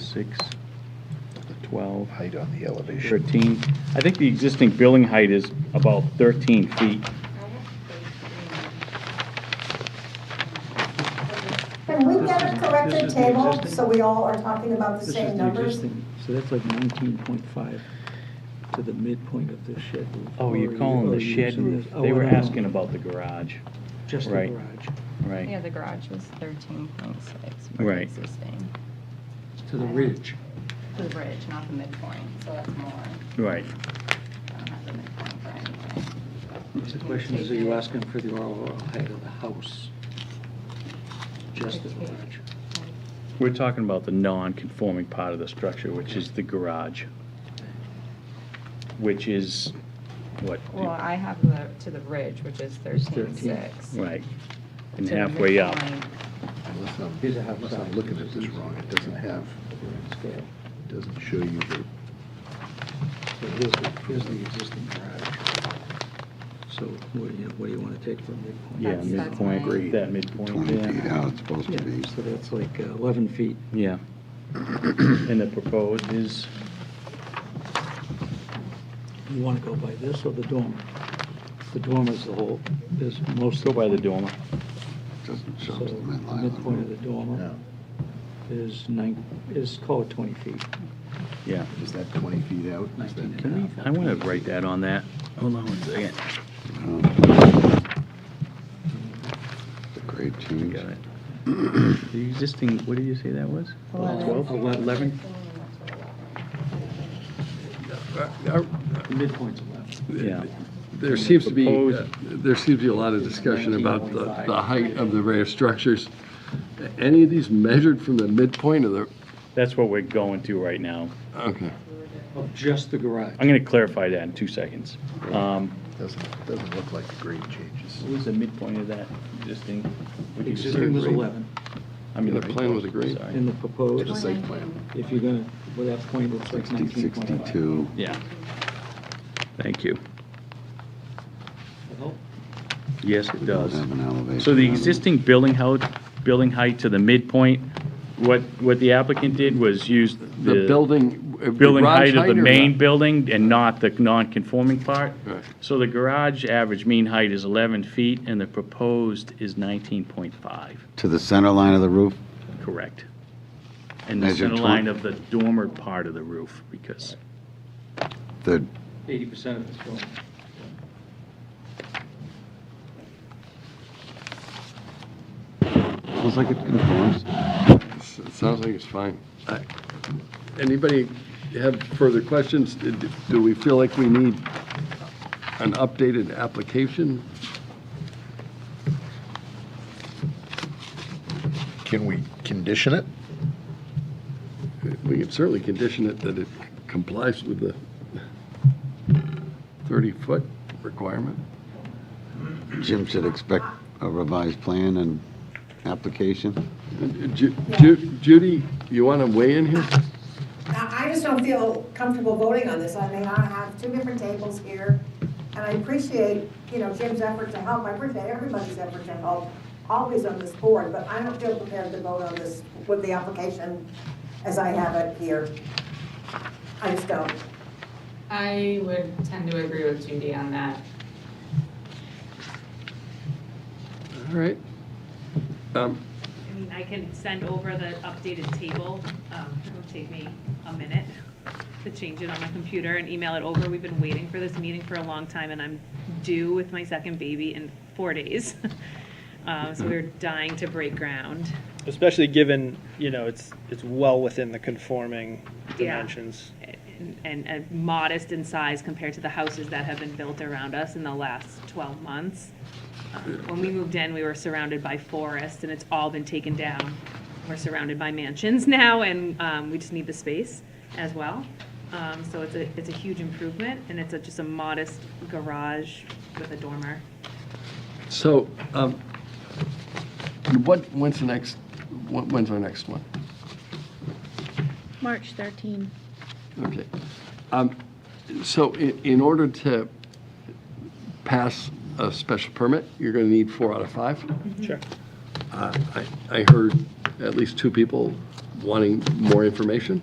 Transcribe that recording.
six, 12, height on the elevation. 13. I think the existing building height is about 13 feet. Can we get a corrected This is the table existing- so we all are talking about the This same is the numbers? existing, so that's like nineteen point five to the midpoint of the shed roof. Oh, Or you're you- calling or the you shed sort roof. of- oh, They I were don't know. asking about the garage, Just the right. garage, Yeah, right? the garage was thirteen point six for the Right. existing, to the ridge. for the bridge, not the midpoint, so that's more. Right. I don't have the midpoint for anything. The question is, are you asking for the overall height of the house? Just the garage. We're talking about the non-conforming part of the structure, which is the garage, which is what? Well, I have the, to the ridge, which is thirteen 13. six. Right. And halfway up. Unless I'm, Here's a house unless I'm size. looking at this wrong, it doesn't have, Scale. it doesn't show you the, So here's the, here's the existing garage. So what, do you- what do you want to take from midpoint? Yeah, That's- that's midpoint, mine. that midpoint 20 feet there. out, it's supposed to be. Yeah, so that's like uh, eleven feet. Yeah. And the proposed is, You want to go by this or the dormer? The dormer is the whole, is most. go by the dormer. Doesn't show So us the midline of the midpoint of the roof. dormer no, is nine, is call it 20 feet. Yeah. is that 20 feet out? Is that- 19 and a Can half. we, I want to write that on that. Hold on one second. Um, The grade We change. got it. The existing, what did you say that was? Twelve? Eleven? The Uh, midpoint's 11. Yeah. There seems to be, Proposed- uh, there seems to be a lot of discussion about the the height of the various structures. Any of these measured from the midpoint of the, That's what we're going to right now. okay. Of just the garage. I'm going to clarify that in two seconds. Um, Doesn't, doesn't look like the grade changes. What was the midpoint of that existing? what you just Existing was said? 11, I mean, Yeah, the plan was agreed. Sorry. and the The proposed, site plan, if you're going to, with that point, it's like 60, 19.5. 62. Yeah. Thank you. Well, Yes, it Don't does. have an elevation. So the on it. existing building height, building height to the midpoint, what, what the applicant did was use the. The building. uh, building garage height of the or main not? building and not the non-conforming part. Right. So the garage average mean height is 11 feet, and the proposed is 19.5, To the center line of the roof, correct? And the Measure center twen- line of the dormer part of the roof, because, the, 80% of it's going. looks like it conforms. S- it Sounds like it's fine. I- Anybody have further questions? Did- Do we feel like we need an updated application? can we condition it? We could certainly condition it that it complies with the 30-foot requirement. Jim should expect a revised plan and application. Ju- Ju- Judy, you want to weigh in here? Now, I just don't feel comfortable voting on this. I mean, I have two different tables here, and I appreciate, you know, Jim's effort to help. I appreciate everybody's effort to help, always on this board, but I don't feel prepared to vote on this with the application as I have it here. I just don't. I would tend to agree with Judy on that. All right. Um, I mean, I can send over the updated table. Um, It'll take me a minute to change it on my computer and email it over. We've been waiting for this meeting for a long time, and I'm due with my second baby in four days. Um, So we're dying to break ground. especially given, you know, it's, it's well within the conforming Yeah. dimensions. and- and and modest in size compared to the houses that have been built around us in the last 12 months. Um, When we moved in, we were surrounded by forest, and it's all been taken down. We're surrounded by mansions now, and um, we just need the space as well. Um, So it's a, it's a huge improvement, and it's a- just a modest garage with a dormer. So, um, what, when's the next, when- when's our next one? March 13. Okay. Um, So in, in order to pass a special permit, you're going to need four out of five? Sure. Uh, I I heard at least two people wanting more information.